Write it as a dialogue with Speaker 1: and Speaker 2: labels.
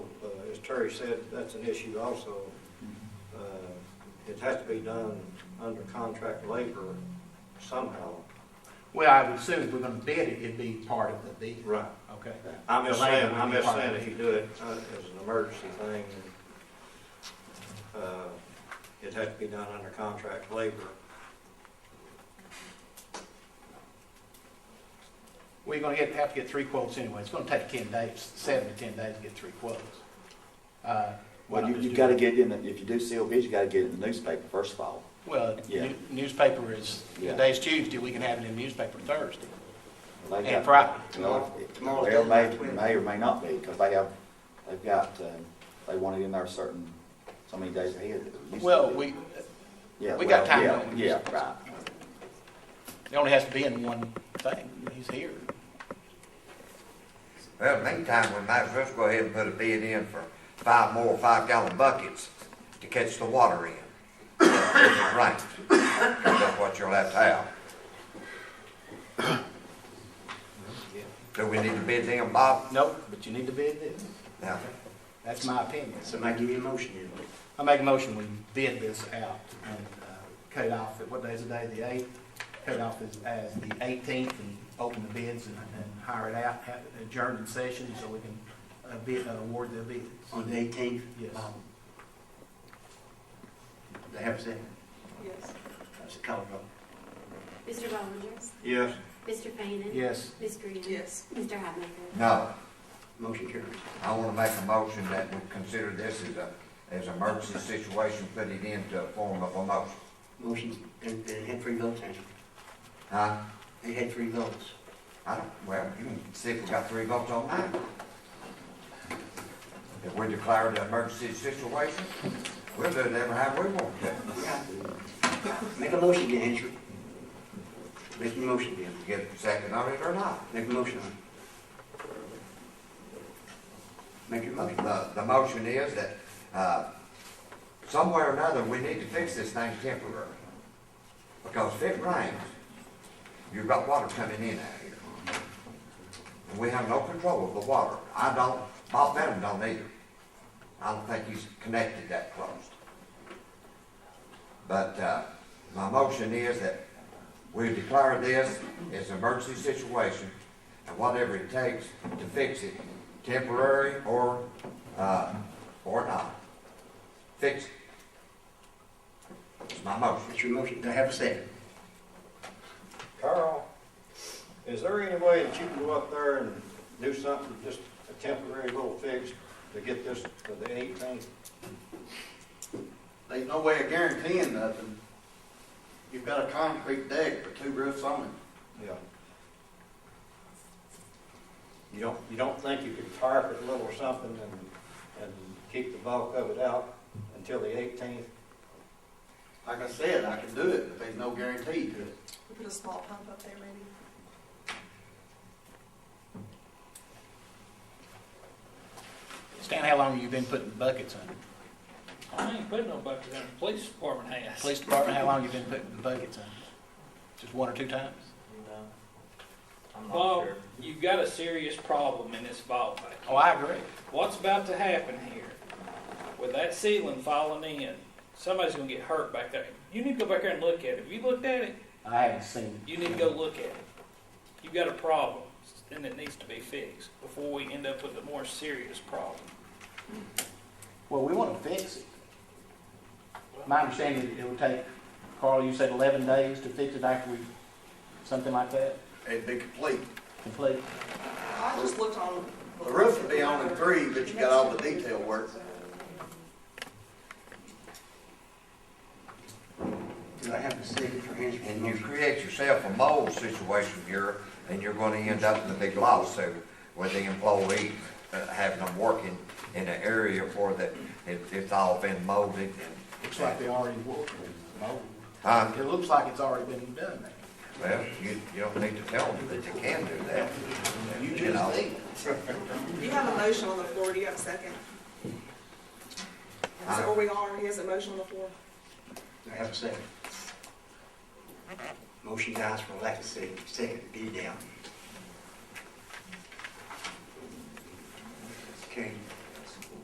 Speaker 1: Mr. Uh, Terry said, that's an issue also. Uh, It has to be done under contract labor somehow.
Speaker 2: Well, I would assume if we're gonna bid it, it'd be part of the bid.
Speaker 1: Right.
Speaker 2: Okay.
Speaker 1: I'm just
Speaker 2: The labor
Speaker 1: saying,
Speaker 2: would
Speaker 1: I'm
Speaker 2: be
Speaker 1: just
Speaker 2: part of
Speaker 1: saying
Speaker 2: it.
Speaker 1: if you do it uh, as an emergency thing, uh, it has to be done under contract labor.
Speaker 2: We're gonna get, have to get three quotes anyway. It's gonna take ten days, seven to ten days to get three quotes. Uh, why
Speaker 3: Well,
Speaker 2: not
Speaker 3: you,
Speaker 2: just
Speaker 3: you
Speaker 2: do
Speaker 3: gotta
Speaker 2: it?
Speaker 3: get in, the if you do seal bids, you gotta get it in the newspaper first of all.
Speaker 2: Well,
Speaker 3: Yeah.
Speaker 2: new- newspaper is,
Speaker 3: Yeah.
Speaker 2: today's Tuesday, we can have it in the newspaper Thursday.
Speaker 3: They
Speaker 2: And
Speaker 3: got-
Speaker 2: Friday.
Speaker 3: Well, it-
Speaker 4: Tomorrow-
Speaker 3: Well, may,
Speaker 4: tomorrow.
Speaker 3: may or may not be, because they have, they've got, uh, they want it in there certain, so many days ahead. It used to
Speaker 2: Well,
Speaker 3: be.
Speaker 2: we,
Speaker 3: Yeah,
Speaker 2: we got
Speaker 3: well,
Speaker 2: time
Speaker 3: yeah,
Speaker 2: on it.
Speaker 3: Yeah, right.
Speaker 2: it only has to be in one thing. He's here.
Speaker 4: Well, in the meantime, we might as well go ahead and put a bid in for five more five gallon buckets to catch the water in. Right, that's what you'll have to have. Do we need to bid them, Bob?
Speaker 2: Nope, but you need to bid this.
Speaker 4: No.
Speaker 2: That's my opinion.
Speaker 5: Somebody give you a motion in.
Speaker 2: I make a motion, we bid this out and uh, cut it off, at what day is the day, the eighth? Cut it off as, as the eighteenth and open the bids and, and hire it out, have it adjourned in session so we can uh, bid, uh, award the bids.
Speaker 5: On the eighteenth? Um,
Speaker 2: Yes.
Speaker 5: They have a second?
Speaker 6: Yes.
Speaker 5: That's a call vote.
Speaker 7: Mr. Rogers?
Speaker 1: Yes,
Speaker 7: Mr. Fannin?
Speaker 2: Yes,
Speaker 7: Ms. Green?
Speaker 6: Yes.
Speaker 7: Mr. Hatmaker?
Speaker 4: No,
Speaker 5: Motion carries.
Speaker 4: I wanna make a motion that we consider this as a, as an emergency situation, put it into a form of a motion.
Speaker 5: Motion, and, and had three votes, Angela.
Speaker 4: Huh?
Speaker 5: They had three votes.
Speaker 4: I don't, well, you can see if we got three votes on that. If we declare an emergency situation, we'll do it every how we want to.
Speaker 5: Make a motion then, Angela. Make a motion then.
Speaker 4: Get a second on it or not.
Speaker 5: Make a motion on it. Make your motion.
Speaker 4: The, the motion is that, uh, somewhere or another, we need to fix this thing temporarily. Because if it rains, you've got water coming in out here. And we have no control of the water. I don't, Bob Benham don't either. I don't think he's connected that close. But, uh, my motion is that we declare this as an emergency situation and whatever it takes to fix it, temporary or, uh, or not. Fix it. It's my motion.
Speaker 5: That's your motion. They have a second.
Speaker 1: Carl, is there any way that you can go up there and do something, just a temporary little fix to get this to the eighteenth?
Speaker 8: There's no way of guaranteeing nothing. You've got a concrete deck with two roofs on it.
Speaker 1: Yeah. You don't, you don't think you could tarp it a little or something and, and keep the bulk of it out until the eighteenth?
Speaker 8: Like I said, I can do it, but there's no guarantee to it.
Speaker 6: We put a small pump up there, maybe.
Speaker 2: Stan, how long have you been putting buckets under?
Speaker 9: I ain't putting no bucket down, the police department has.
Speaker 2: Police department, how long you been putting the buckets under? Just one or two times?
Speaker 9: Bob, you've got a serious problem in this ball field.
Speaker 2: Oh, I agree.
Speaker 9: What's about to happen here, with that ceiling falling in, somebody's gonna get hurt back there. You need to go back there and look at it. If you looked at it,
Speaker 2: I haven't seen
Speaker 9: you need to go look at it. You've got a problem, and it needs to be fixed before we end up with a more serious problem.
Speaker 2: Well, we want to fix it. My understanding is it would take, Carl, you said eleven days to fix it after we, something like that,
Speaker 8: It'd be complete.
Speaker 2: complete?
Speaker 6: I just looked on.
Speaker 8: The roof would be on in three, but you got all the detail work.
Speaker 5: Do I have a second for Angela's
Speaker 4: And you
Speaker 5: motion?
Speaker 4: create yourself a mold situation here, and you're gonna end up in a big lawsuit with the employee uh, having them working in an area where that, it, it's all been molded
Speaker 2: Looks like
Speaker 4: and.
Speaker 2: they already worked with mold.
Speaker 4: Huh?
Speaker 2: It looks like it's already been done there.
Speaker 4: Well, you, you don't need to tell them that they can do that.
Speaker 8: You
Speaker 4: You know.
Speaker 8: just think.
Speaker 6: You have a motion on the floor, do you have a second? Is that where we are, he has a motion on the floor?
Speaker 5: Do I have a second? Motion dies for lack of second, second, be down.